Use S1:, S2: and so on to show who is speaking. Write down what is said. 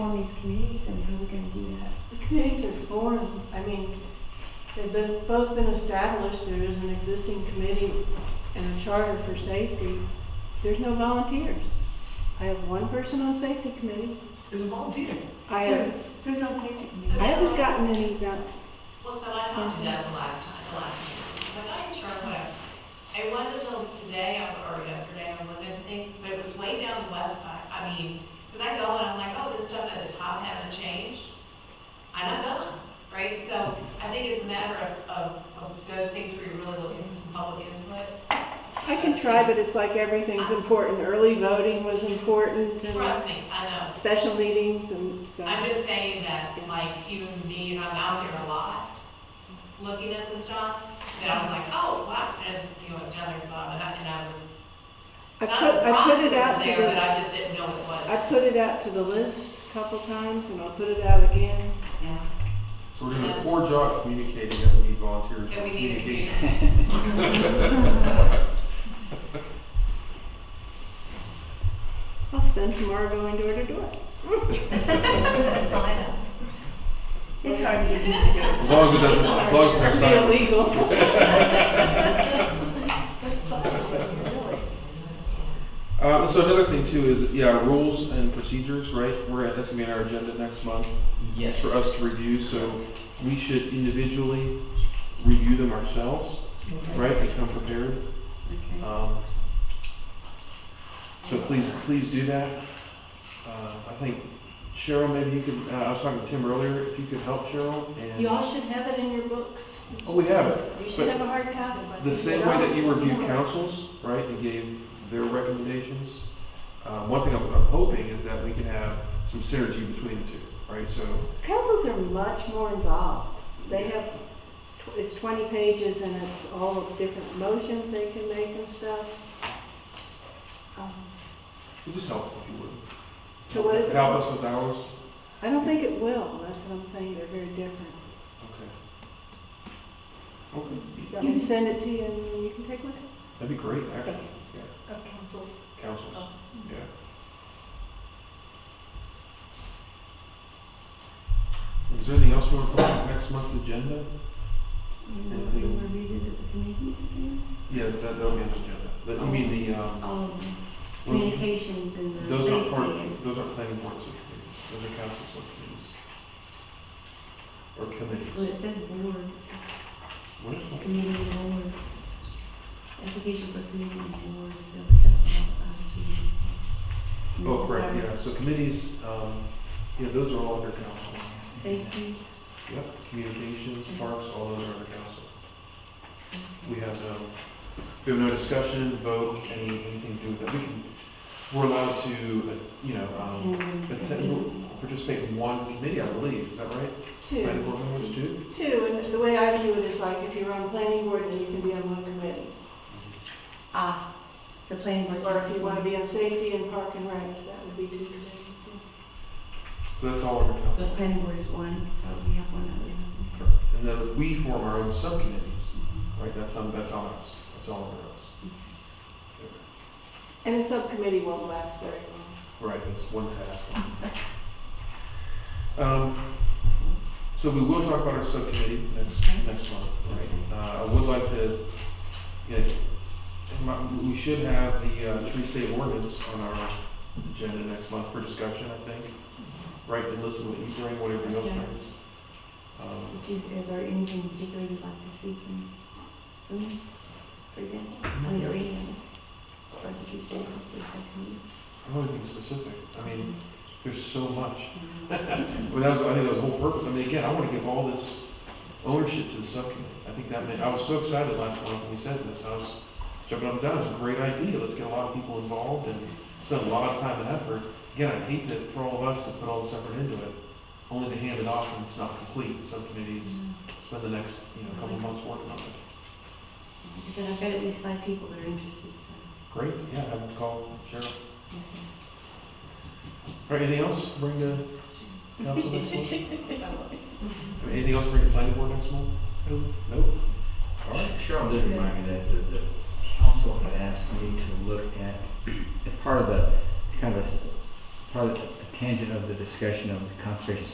S1: form these committees and how we're gonna do that?
S2: The committees are formed, I mean, they've been, both been established, there is an existing committee and a charter for safety. There's no volunteers. I have one person on safety committee.
S3: There's a volunteer.
S2: I have,
S1: Who's on safety
S2: I
S1: committee?
S2: haven't gotten any, val-
S4: Well, so I talked to Deb the last time, the last meeting, I was like, I'm sure, whatever. It wasn't until today, I- or yesterday, I was looking at the thing, but it was way down the website, I mean, because I go and I'm like, oh, this stuff at the top hasn't changed, I'm not done, right? So I think it's a matter of, of, of those things where you're really looking for some public input.
S2: I can try, but it's like everything's important. Early voting was important and
S4: Trust me, I know.
S2: special meetings and
S4: I'm
S2: stuff.
S4: just saying that, like, even me, and I'm out here a lot, looking at the stuff, that I was like, oh, wow, and, it's, you know, it's down there at the bottom, and I, and I was,
S2: I put,
S4: not surprised
S2: I put it
S4: was
S2: out
S4: there, but
S2: to
S4: I just didn't know it
S2: the,
S4: was.
S2: I put it out to the list a couple times and I'll put it out again.
S5: So we're doing a poor job communicating that we need volunteers.
S4: That we need to
S5: Communicate.
S4: communicate.
S2: I'll spend tomorrow going door to door.
S1: It's hard to get people to go.
S5: As long as it doesn't, as long as it's
S2: Be
S5: not
S2: illegal.
S5: Uh, so another thing too is, yeah, rules and procedures, right? We're, at- that's gonna be on our agenda next month
S3: Yes.
S5: for us to review, so we should individually review them ourselves, right? And come prepared.
S1: Okay.
S5: Um, so please, please do that. Uh, I think Cheryl, maybe you could, uh, I was talking to Tim earlier, if you could help Cheryl and.
S2: Y'all should have it in your books.
S5: Oh, we have it.
S2: You
S5: but-
S2: should have a hard copy. but-
S5: The same way that you reviewed councils, right, and gave their recommendations, uh, one thing I'm, I'm hoping is that we can have some synergy between the two, right, so,
S2: Councils are much more involved. They have, tw- it's 20 pages and it's all of different motions they can make and stuff. Um,
S5: we'll just help if you would.
S2: So what is it?
S5: Help us with ours,
S2: I don't think it will, that's what I'm saying, they're very different.
S5: okay. Okay,
S2: You can send it to you and you can take a look at
S5: that'd be great, actually,
S1: Of councils.
S5: councils,
S2: Oh.
S5: yeah. Is there anything else we want to put on next month's agenda?
S1: You want to revisit the committees again?
S5: Yes, that, that'll be on the agenda, but you mean the, um,
S1: Um,
S5: when-
S1: communications and the
S5: Those aren't part,
S1: safety.
S5: those aren't planning board subcommittees, those are council subcommittees. Or
S1: and- Well,
S5: committees.
S1: it says board,
S5: What is that?
S1: community board. Application for community board, so just one of the.
S5: Oh, correct, yeah, so committees, um, yeah, those are all under council.
S1: Safety.
S5: Yep, communications, parks, all those are under council. We have no, we have no discussion, vote, any, anything to do with that, we can, we're allowed to, uh, you know, um,
S1: and
S5: attend- participate in one committee, I believe, is that right? Planning
S2: it.
S5: board members do?
S2: Two, two, and the way I view it is like, if you're on planning board, then you can be on one committee.
S1: Ah, so planning board.
S2: Or if you want to be on safety and park and rec, that would be two committees.
S5: So that's all under
S1: The
S5: council.
S1: planning board is one, so we have one other.
S5: And then we form our own subcommittees, right? That's on, that's on us, that's all under us.
S2: And a subcommittee won't last very long.
S5: Right, that's one task. Um, so we will talk about our subcommittee next, next month, right? Uh, I would like to, you know, my- we should have the uh, tree save ordinance on our agenda next month for discussion, I think. Right, to listen to what you bring, what everyone else
S1: Okay.
S5: brings. Um,
S1: Did you, is there anything particular you'd like to see from, from me, for example? I mean, reading this, or the Tuesday, or something.
S5: I don't think specific, I mean, There's so much. Well, that was, I think that was the whole purpose. I mean, again, I want to give all this ownership to the subcommittee. I think that meant, I was so excited last month when we said this. I was jumping up and down. It's a great idea. Let's get a lot of people involved and spend a lot of time and effort. Again, I'd hate to, for all of us to put all this effort into it, only to hand it off when it's not complete. Subcommittees spend the next, you know, couple of months working on it.
S1: Because then I've got at least five people that are interested, so.
S5: Great, yeah, have a call, Cheryl. All right, anything else? Bring the council next month? Anything else bring the planning board next month? Nope. All right.
S3: Cheryl did remind me that the, the council had asked me to look at, as part of the, kind of a s- part of the tangent of the discussion of the conservation